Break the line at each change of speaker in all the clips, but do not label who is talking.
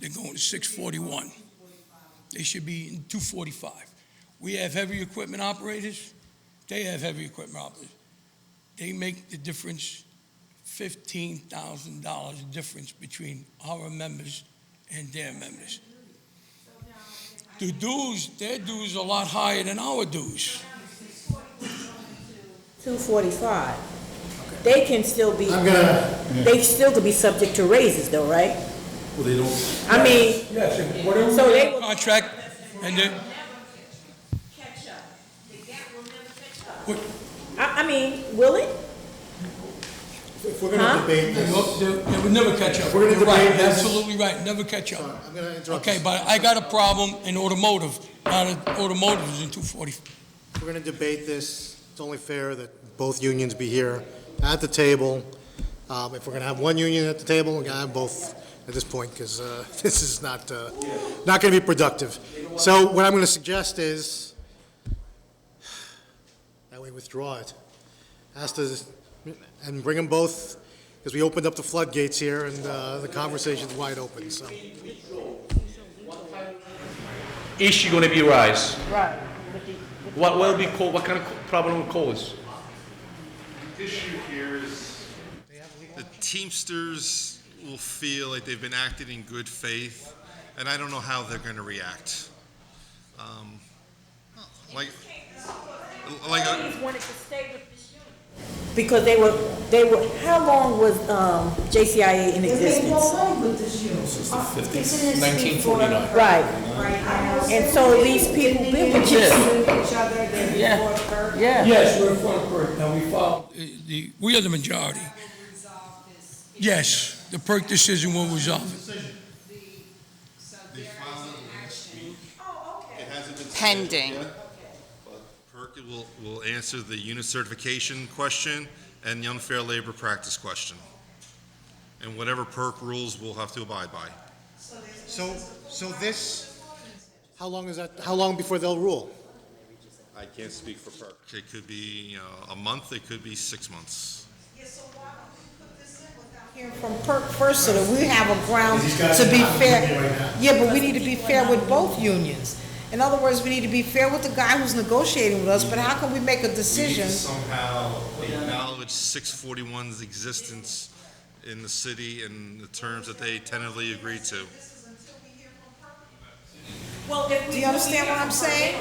They're going to six forty-one. They should be in two forty-five. We have heavy equipment operators, they have heavy equipment operators. They make the difference, fifteen thousand dollars difference between our members and their members. The dues, their dues are a lot higher than our dues.
245. They can still be,
I'm gonna,
they still could be subject to raises though, right?
well, they don't,
I mean,
Yes, and whatever
So they will-
contract, and then,
catch up. The gap will never catch up.
I, I mean, will it?
if we're gonna debate
they
this,
they would never catch up.
We're gonna
You're right,
debate this.
Absolutely right, never catch up.
I'm gonna interrupt.
Okay, but I got a problem in automotive, not in automotive is in two forty.
We're gonna debate this, it's only fair that both unions be here at the table. Um, if we're gonna have one union at the table, we're gonna have both at this point, because, uh, this is not, uh, not gonna be productive. So what I'm gonna suggest is, that we withdraw it. Ask the, and bring them both, because we opened up the floodgates here, and, uh, the conversation's wide open, so.
issue going to be rise?
Right.
What will be called? What kind of problem will cause?
issue here is the Teamsters will feel like they've been acted in good faith, and I don't know how they're going to react. Um, Like, like, uh,
wanted to stay with this union.
Because they were, they were, how long was, um, JCIA in existence? Right, and so these people been with this.
Yeah.
Yes, we're in front of PERC, now we follow. Uh, The, we are the majority. Yes, the PERC decision will resolve it.
they filed it last week. It hasn't been scheduled
Pending.
yet, but PERC will, will answer the unit certification question and the unfair labor practice question. And whatever PERC rules, we'll have to abide by.
So, so this, how long is that, how long before they'll rule?
I can't speak for PERC. It could be, uh, a month, it could be six months.
Hearing from PERC first, so that we have a ground to be fair. Yeah, but we need to be fair with both unions. In other words, we need to be fair with the guy who's negotiating with us, but how can we make a
need
decision?
to somehow acknowledge 641's existence in the city and the terms that they tentatively agreed to.
Do you understand what I'm saying?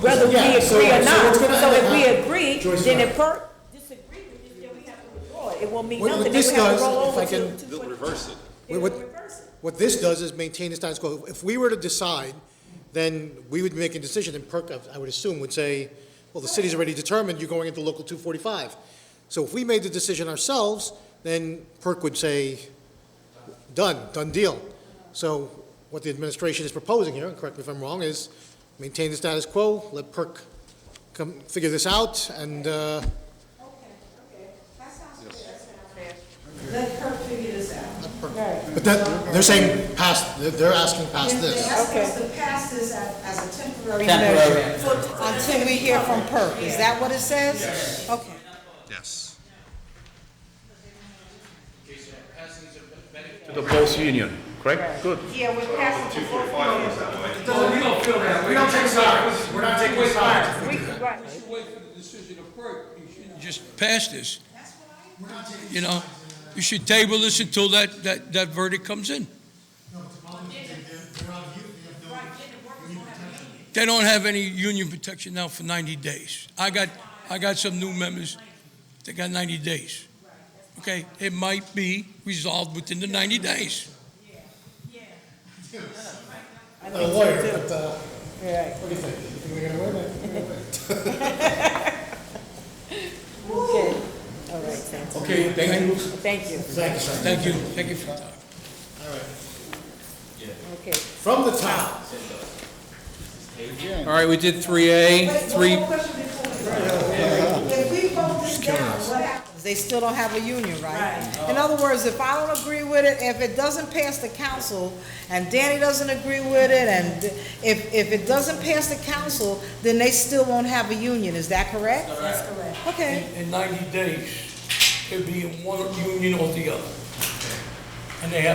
Whether we
Yeah, so-
agree or
so
not,
what's gonna
so if
happen-
we agree,
Joyce,
then
sorry.
if PERC disagree with this, then we have to withdraw it. It won't mean
What- what
nothing, then
this
we have
does,
to roll
if I
over to.
can-
They'll reverse it.
Wait, what- What this does is maintain the status quo. If we were to decide, then we would make a decision, and PERC, I would assume, would say, well, the city's already determined you're going into Local 245. So if we made the decision ourselves, then PERC would say, done, done deal. So what the administration is proposing here, and correct me if I'm wrong, is maintain the status quo, let PERC come, figure this out, and, uh,
Let PERC figure this out.
but that, they're saying past, they're- they're asking past this.
us to pass this as a temporary
Temporary.
Until we hear from PERC, is that what it says? Okay.
Yes.
To the both union, correct? Good.
Yeah, we're passing to both unions.
Wait for the decision of PERC, you shouldn't just pass this. You know, you should table this until that, that, that verdict comes in. They don't have any union protection now for 90 days. I got, I got some new members, they got 90 days. Okay, it might be resolved within the 90 days.
I'm not a lawyer, but, uh,
Right.
what do you think? You think they're gonna win it?
Okay, all right, thank you.
Okay, thank you.
Thank you.
Thank you, sir.
Thank you, thank you for your time.
Okay.
From the top.
All right, we did 3A, 3,
If we vote this down, what happens? They still don't have a union, right? In other words, if I don't agree with it, if it doesn't pass the council, and Danny doesn't agree with it, and if, if it doesn't pass the council, then they still won't have a union, is that correct? That's correct. Okay.
in 90 days, it'd be in one union or the other. And they have